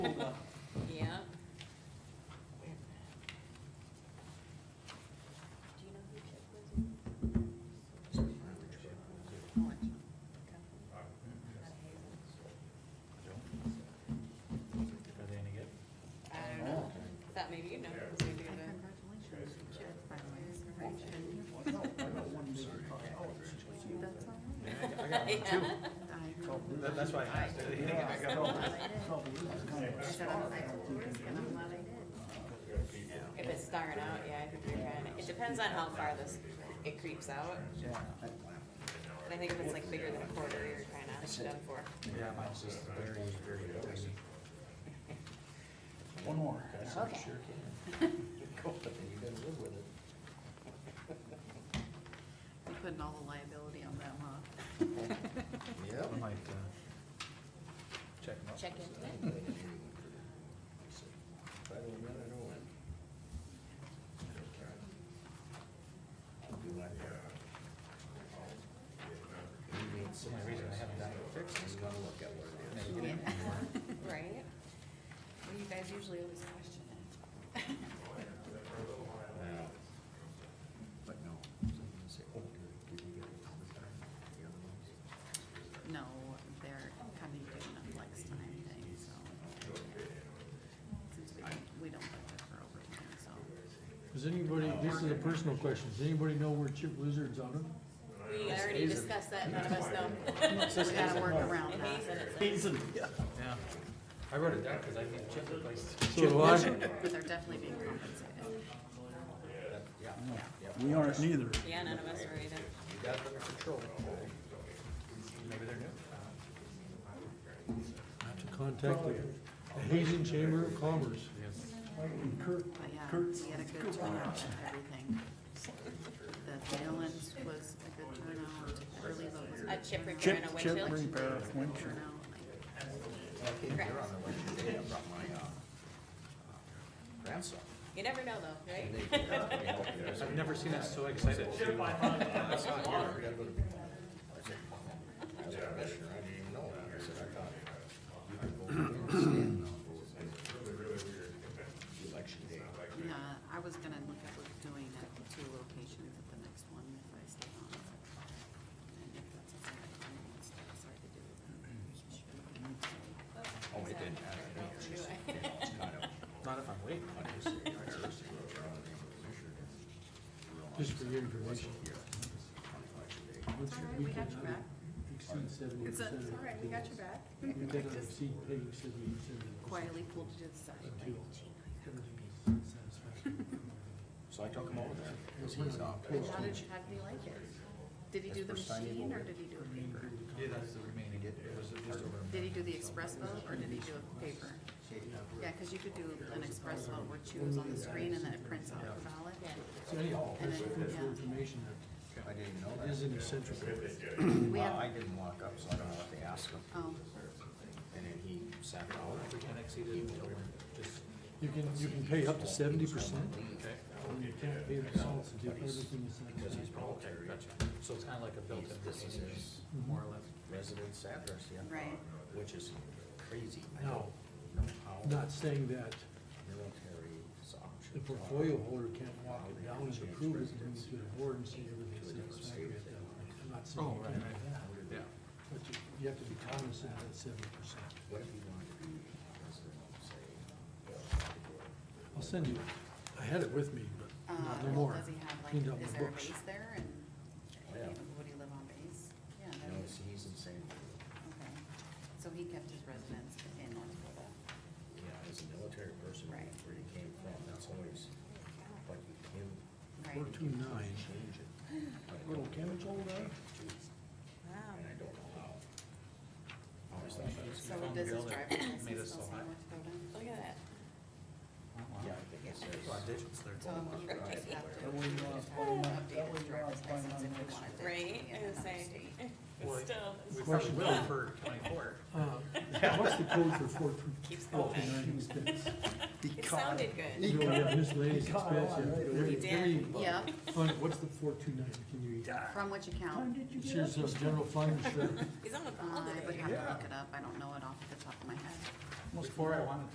got one too. I That- That's why I asked. I didn't think I got one. said, I'm glad I told Chris, and I'm glad I did. If it's starting out, yeah, I think you're kind of, it depends on how far this, it creeps out. But I think if it's like bigger than a quarter, you're kind of done for. Yeah, mine's just very, very tiny. One more. Okay. Sure can. Go with it, You gotta live with it. We putting all the liability on them, huh? Yep. I might, uh, check them out. Check into it. If I don't win, I don't win. So my reason I haven't gotten it fixed is gonna look at what it is. Right? Well, you guys usually always question it. But no. So you can say, oh, did you get it all the time? The other ones? No, they're kind of doing a flex time thing, so. Since we don't, we don't budget for overtime, so. Does anybody, this is a personal question, does anybody know where Chip Lizard's out of? We already discussed that, none of us know. We gotta work around And he's in that. it, so- Yeah. I wrote it down because I think Chip replaced. So do I. But they're definitely being compensated. Yeah. Yep. We aren't neither. Yeah, none of us were either. You got it under control. Maybe they're new. To contact the Hazen Chamber of Commerce. Kurt, But yeah, Kurt's- we had a good turnout and everything. The mail-ins was a good turnout, early vote was a A good chip repair chip, and a chip windshield. repair, windshield. turnout. like, You're on the way today, I brought my, uh, grandson. You never know though, right? I've never seen us so excited. I saw it, yeah, we gotta go to Big Mama. I said, "Mama, I was a commissioner, I didn't even know. I said, I thought you could go over and stand on the Election day. Yeah, I was gonna look at doing at the two locations at the next one if I stay on. And if that's a side, I mean, it's hard to do. Oh, it didn't matter. to me. It's just- it's kind of- Not if I'm waiting. Just for your information. Once your we got weekend you back. Exceed seventy percent. your back. You cannot exceed paying seventy percent. Quietly pulled you to the side. Everything is satisfactory. So I took him over there. Cause he's off. And how did, how did he like it? Did he do the That's for signing machine or over. did he do a paper? Yeah, that's the remaining, it was just over. Did he do the express vote or did he do a paper? Yeah, cause you could do an express vote where choose on the screen and then it prints out the ballot. So anyhow, And that's then, good for yeah. information, I didn't even know that is that. an essential. We Well, have, I didn't walk up, so I don't know what they asked him. oh, And then he sat down. We can exceed it, just, You can, you can pay up to seventy percent, and you can't pay the balance until everything is Because he's satisfactory. military. gotcha. So it's kind of like a built-in This is retaining his wall, more or less. residence address, yeah. Right. Which is crazy. I No. don't know how Not saying that military is the optioned. portfolio holder can't walk it down and approve it and bring it to the board and say everything's satisfactory at that point. I'm not Oh, saying you can't do that, Yeah. but you, you have to be cognizant of that seventy percent. What if he wanted to be a resident, I'll send you, I had it with me, Uh, but not no more. Does he have Cleaned out like, my is there a books. base there and, Yeah. would he live on base? Yeah, say, that no, was, it's- he's insane. okay. So he kept his residence in North Dakota. Yeah, he's a military person, where Right. he came from, that's always, but you can Four Right. two nine. change it. but I Little don't know Ken's old, huh? Wow. And I don't know how. I always thought that was- So found does the his girl that driver's license made us still so say high. North Dakota? Look at that. Yeah, I think it says. Well, digits there. So he would just have to, That way you just wanna have find to out- that update way his you driver's wanna find license out if he next wanted to. Right, be in I was another saying. state. Well, Still, it's We probably Question. will for twenty-four. Uh, What's the code for four two, Keeps four two going. nine expense? it sounded good. You don't have miscellaneous expense, you have every, He every did. Yeah, fund, what's the four two nine, can you? from which account? It's yours, uh, general fund, sure. He's on the Uh, call I would today. have to look it up. I don't know it off the top of my head. Before I wanted